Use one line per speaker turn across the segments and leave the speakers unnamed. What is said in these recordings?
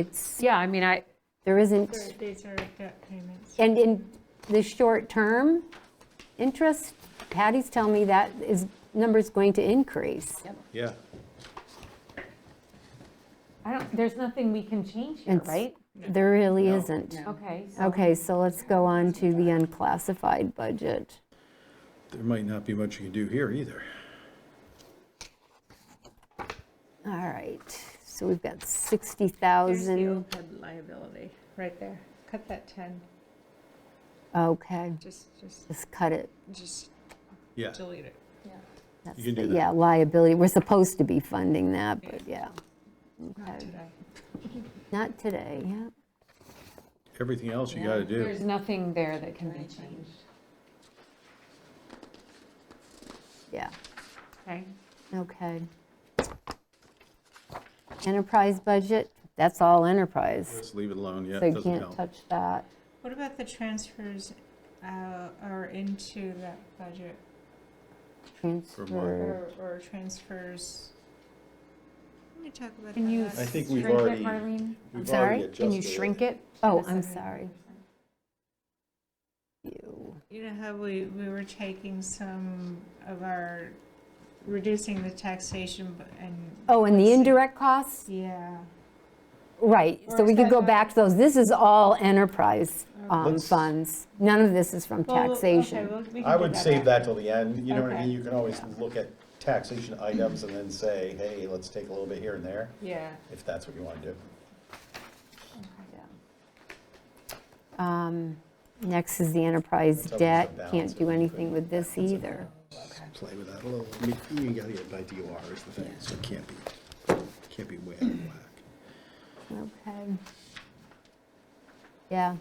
it's,
Yeah, I mean, I,
there isn't,
These are debt payments.
and in the short-term interest, Patty's telling me that is, number's going to increase.
Yeah.
I don't, there's nothing we can change here,
It's-
right?
There really isn't.
Okay, so
Okay, so let's go on to the unclassified budget.
There might not be much you can do here either.
All right, so we've got
There's the
60,000,
OPEB liability, right there. Cut that 10,
okay,
just, just,
just cut it.
just
Yeah,
delete it. Yeah.
That's
can
the-
do that.
Yeah, liability, we're supposed to be funding that, but yeah.
Not
Okay.
today.
Not today, yeah.
everything else you gotta do.
there's nothing there that can be changed.
Yeah,
Okay,
okay. Enterprise budget, that's all enterprise,
Just leave it alone, yeah,
so
it
you
doesn't
can't
help.
touch that.
What about the transfers uh, are into that budget
Transfer,
or, or transfers? Let me talk about that.
can you
last-
I think we've
shrink it,
already-
Marlene?
I'm sorry,
Can you shrink it?
oh,
That's
I'm
okay.
sorry. You-
You know how we, we were taking some of our, reducing the taxation bu- and.
Oh, and the indirect costs,
Yeah.
right, so
Or
we
is
could
that
go
not-
back to those, this is all enterprise um,
Let's-
funds, none of this is from
Well, okay,
taxation.
well, we can
I
do
would save
after.
that till the end, you know what I
Okay.
mean? You can always look at taxation items and then say, hey, let's take a little bit here and there,
Yeah.
if that's what you want to do.
Um, Next is the enterprise
That's always a
debt,
balance
can't do
of
anything with this either.
Play with that a little, I mean, you gotta get it by DOR is the thing, so it can't be, can't be way out of whack.
Okay. Yeah,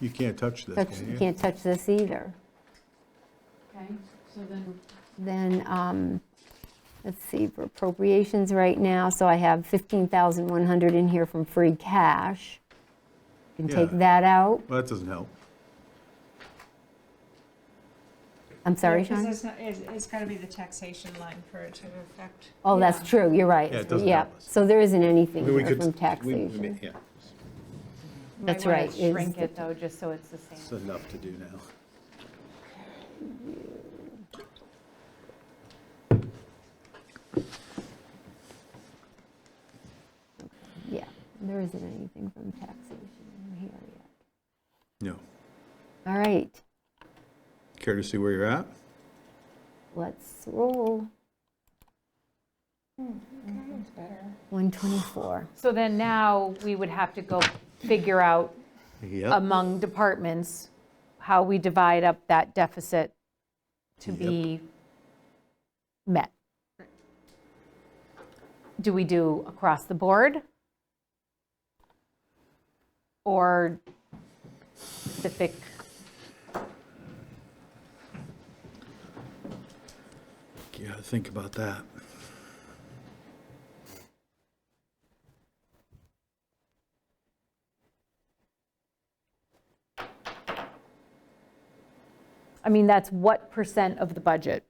You can't touch this,
touch-
can you?
can't touch this either.
Okay, so then,
Then, um, let's see, for appropriations right now, so I have 15,100 in here from free cash. You Can
Yeah.
take that out.
Well, that doesn't help.
I'm sorry,
Because
Sean?
it's not, it's, it's gotta be the taxation line for it to affect.
Oh, that's true, you're right.
Yeah, it doesn't help us.
So there isn't anything
I mean, we
here
could-
from
we- we may-
taxation.
Yeah,
you
That's
might want
right,
to
is
shrink
the-
it though, just so it's the
it's
same.
enough to do now.
Yeah, there isn't anything from taxation in here yet.
No.
All right,
Care to see where you're at?
let's roll. 124.
So then now we would have to go figure out
Yep.
among departments how we divide up that deficit to
Yep.
be met. Do we do across the board? Or specific?
Yeah, think about that.
I mean, that's what percent of the budget?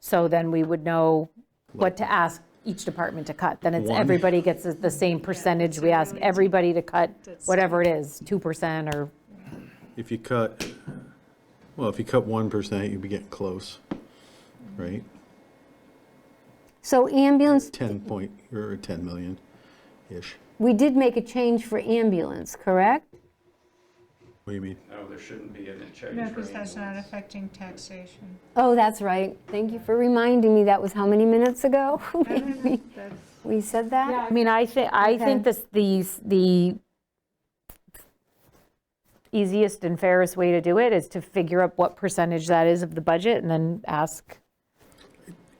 So then we would know what to ask each department to cut. Then it's,
One.
everybody gets the same percentage. We ask everybody to cut whatever it is, 2% or
If you cut, well, if you cut 1%, you'd be getting close, right?
So ambulance,
10 point, or 10 million-ish.
we did make a change for ambulance, correct?
What do you mean?
No, Oh, there shouldn't be any change.
No,
for
because that's not
ambulance.
affecting taxation.
Oh, that's right. Thank you for reminding me. That was how many minutes ago?
I don't know, that's-
We said that?
I mean, I think, I think
Okay.
this, these, the easiest and fairest way to do it is to figure out what percentage that is of the budget and then ask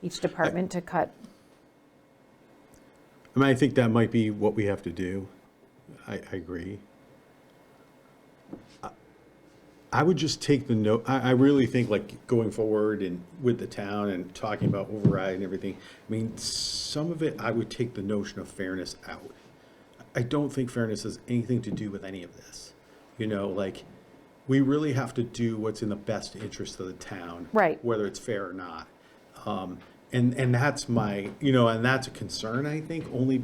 each department to cut.
I mean, I think that might be what we have to do. I, I agree. I- I would just take the note, I, I really think like going forward and with the town and talking about override and everything, I mean, some of it, I would take the notion of fairness out. I don't think fairness has anything to do with any of this. You know, like, we really have to do what's in the best interest of the town.
Right.
Whether it's fair or not. Um, And, and that's my, you know, and that's a concern, I think, only